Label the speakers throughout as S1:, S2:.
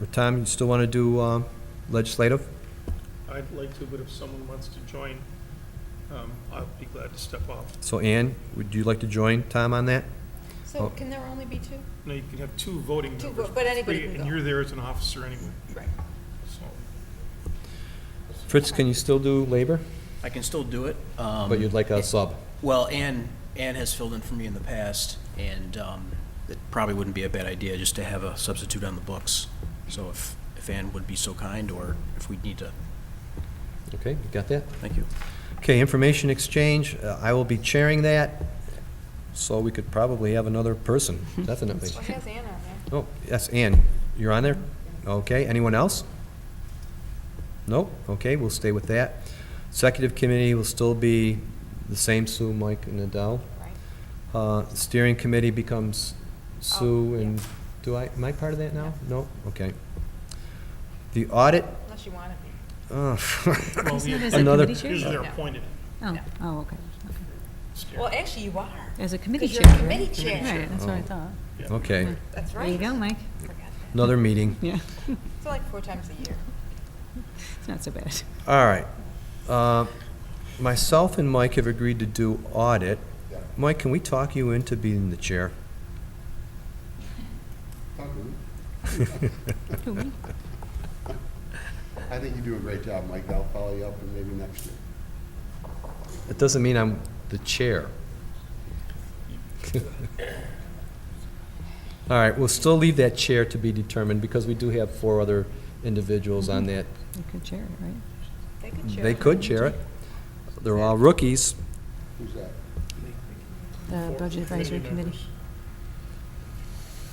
S1: Or Tom, you still want to do um, legislative?
S2: I'd like to, but if someone wants to join, um, I'll be glad to step off.
S1: So Ann, would you like to join Tom on that? Oh.
S3: So can there only be two?
S2: Now, you can have two voting
S3: Two
S2: members.
S3: vo- but anybody
S2: three,
S3: can
S2: And
S3: go.
S2: you're there as an officer anyway,
S3: Right.
S2: so.
S1: Fritz, can you still do labor?
S4: I can still do it. Uh,
S1: But you'd like a sub?
S4: Well, Ann, Ann has filled in for me in the past, and um, it probably wouldn't be a bad idea just to have a substitute on the books. So if, if Ann would be so kind, or if we'd need to,
S1: Okay, you got that?
S4: thank you.
S1: Okay, information exchange, uh, I will be chairing that, so we could probably have another person, definitely.
S3: Well, it has Ann on there.
S1: Oh, yes, Ann, you're on there? Okay, anyone else? Nope, okay, we'll stay with that. Executive committee will still be the same Sue, Mike, and Adele.
S3: Right.
S1: Uh, Steering committee becomes Sue
S3: Oh, yeah.
S1: and, do I, am I part of that now? No, okay. The audit,
S3: Unless you want to be.
S1: uh,
S2: Well,
S5: Isn't it
S2: the-
S5: as a
S1: Another-
S5: committee chair?
S2: Usually they're
S3: Yeah.
S2: appointed.
S5: Oh,
S3: Yeah.
S5: oh, okay. okay.
S2: Stan.
S3: Well, actually, you are.
S5: As a committee
S3: Because
S5: chair.
S3: you're a
S5: right?
S3: committee chair.
S5: Right, that's what I
S1: Oh.
S5: thought.
S2: Yeah.
S1: okay,
S3: That's
S5: There
S3: right.
S5: you go, Mike.
S3: Forgot that.
S1: another meeting.
S5: Yeah,
S3: It's like four times a year.
S5: it's not so bad.
S1: All right. Uh, Myself and Mike have agreed to do audit. Mike, can we talk you into being the chair?
S6: Not really.
S5: Who, me?
S6: I think you do a great job, Mike. I'll follow you up and maybe next year.
S1: It doesn't mean I'm the chair. All right, we'll still leave that chair to be determined because we do have four other individuals on that.
S5: You could chair it, right?
S3: They could share.
S1: They could chair it. They're all rookies.
S6: Who's that?
S5: The Uh, Budget Advisory Committee.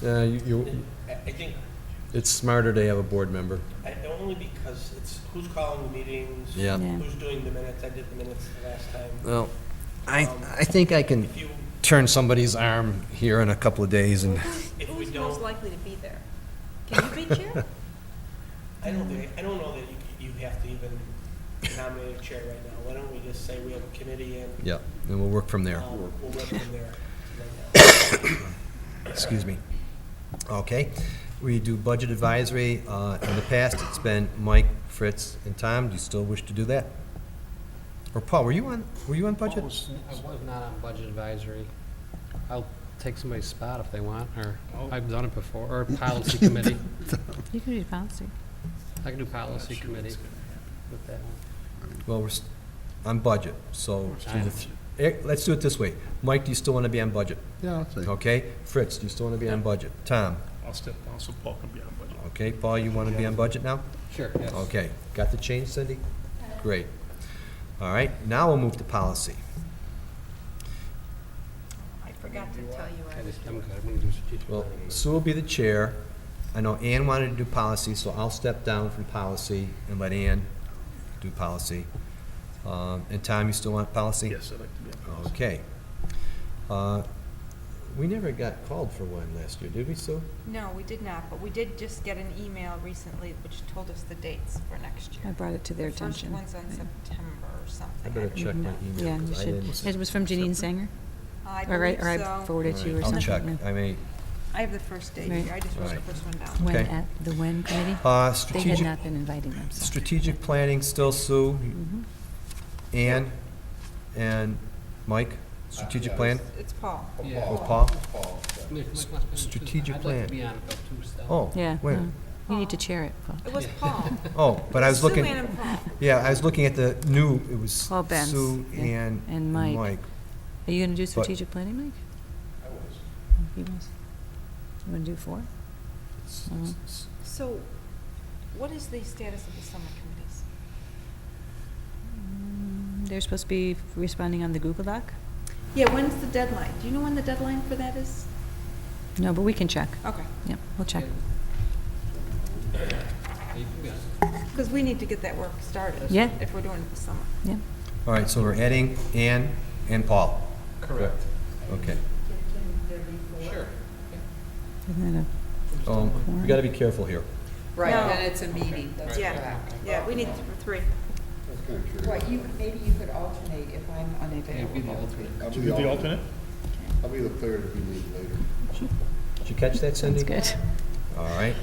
S2: members.
S1: Uh, you- you-
S7: I I think,
S1: It's smarter to have a board member.
S7: I- only because it's who's calling the meetings.
S1: Yeah.
S5: Yeah.
S7: Who's doing the minutes, I did the minutes the last time.
S1: Well, I, I think I can
S7: If you,
S1: turn somebody's arm here in a couple of days and
S7: if we
S3: Who's most
S7: don't,
S3: likely to be there? Can you be chair?
S7: I don't think, I don't know that you, you have to even nominate a chair right now. Why don't we just say we have a committee and
S1: Yeah, and we'll work from there.
S7: uh, we'll work from there. right now.
S1: Excuse me. Okay, we do budget advisory. Uh, In the past, it's been Mike, Fritz, and Tom. Do you still wish to do that? Or Paul, were you on, were you on budget?
S2: Almost-
S8: I was not on budget advisory. I'll take somebody's spot if they want, or
S2: Oh.
S8: I've done it before, or policy committee.
S5: You can do policy.
S8: I can do policy committee with that one.
S1: Well, we're s- on budget, so
S8: I-
S1: Eh, let's do it this way. Mike, do you still want to be on budget?
S6: Yeah, I'll say.
S1: Okay? Fritz, do you still want to be on budget? Tom,
S2: I'll step down so Paul can be on budget.
S1: okay, Paul, you want to be on budget now?
S8: Sure, yes.
S1: Okay, got the change, Cindy? Great. All right, now we'll move to policy.
S3: I forgot to tell you. I
S8: I
S3: was-
S8: just- I'm good, I'm gonna do strategic
S1: Well,
S8: planning.
S1: Sue will be the chair. I know Ann wanted to do policy, so I'll step down from policy and let Ann do policy. Um, And Tom, you still want policy?
S2: Yes, I'd like to be on budget.
S1: Okay. Uh, We never got called for one last year, did we, Sue?
S3: No, we did not, but we did just get an email recently which told us the dates for next
S5: I
S3: year.
S5: brought it to their
S3: The First
S5: attention.
S3: one's on
S5: Right.
S3: September or something.
S1: I better
S3: don't
S1: check my
S3: know.
S1: email.
S5: Yeah,
S1: 'cause
S5: you
S1: I didn't-
S5: should, it was from Janine Sanger?
S3: I
S5: Or I-
S3: believe
S5: or I
S3: so.
S5: forwarded to you or
S1: All right,
S5: something?
S1: I'll check,
S5: yeah.
S1: I may.
S3: I have the first date
S5: Right.
S3: here. I just wrote the
S1: Right.
S3: first one down.
S5: When
S1: Okay.
S5: at, the when committee?
S1: Uh,
S5: They had
S1: Strategic,
S5: not been inviting them, so.
S1: strategic planning, still Sue,
S5: Mhm.
S1: Ann, and Mike, strategic
S6: yes.
S1: plan?
S3: It's Paul.
S8: Yeah.
S1: Oh, Paul?
S6: Paul, so.
S8: Mike wants me to do-
S1: strategic
S8: I'd like
S1: plan.
S8: to be on it though, too, still.
S1: Oh,
S5: Yeah. Uh-huh.
S1: wait,
S5: no. You need to chair it, Paul.
S3: It was Paul.
S1: oh, but I was looking.
S3: Sue Ann and Paul.
S1: Yeah, I was looking at the new, it was
S5: Oh, Ben's,
S1: Sue
S5: yeah,
S1: and
S5: and
S1: and
S5: Mike.
S1: Mike.
S5: Are you gonna do strategic planning, Mike? Oh, He was. You wanna do four?
S1: S-
S5: Mhm.
S1: s- s-
S3: So, what is the status of the summer committees?
S5: Mm, They're supposed to be responding on the Google Doc?
S3: Yeah, when's the deadline? Do you know when the deadline for that is?
S5: No, but we can check.
S3: Okay,
S5: Yep, we'll check.
S8: Yeah, you can be on it.
S3: because we need to get that work started.
S5: Yeah.
S3: If we're doing it this summer.
S5: Yep.
S1: All right, so we're adding Ann and Paul.
S8: Correct.
S1: Okay.
S8: Sure.
S5: Isn't that
S1: Um, We got to be careful here.
S9: Right,
S3: No.
S9: and it's a meeting, that's
S3: Yeah,
S9: correct.
S3: yeah, we need th- three.
S6: That's kind of curious.
S9: What, you, maybe you could alternate if I'm
S8: Yeah, be the
S9: unavailable.
S8: alternate.
S6: I'll be
S2: You the alternate?
S6: I'll be the third if you need later.
S1: Did you catch that,
S5: a, that's
S1: Cindy?
S5: good.
S1: All right.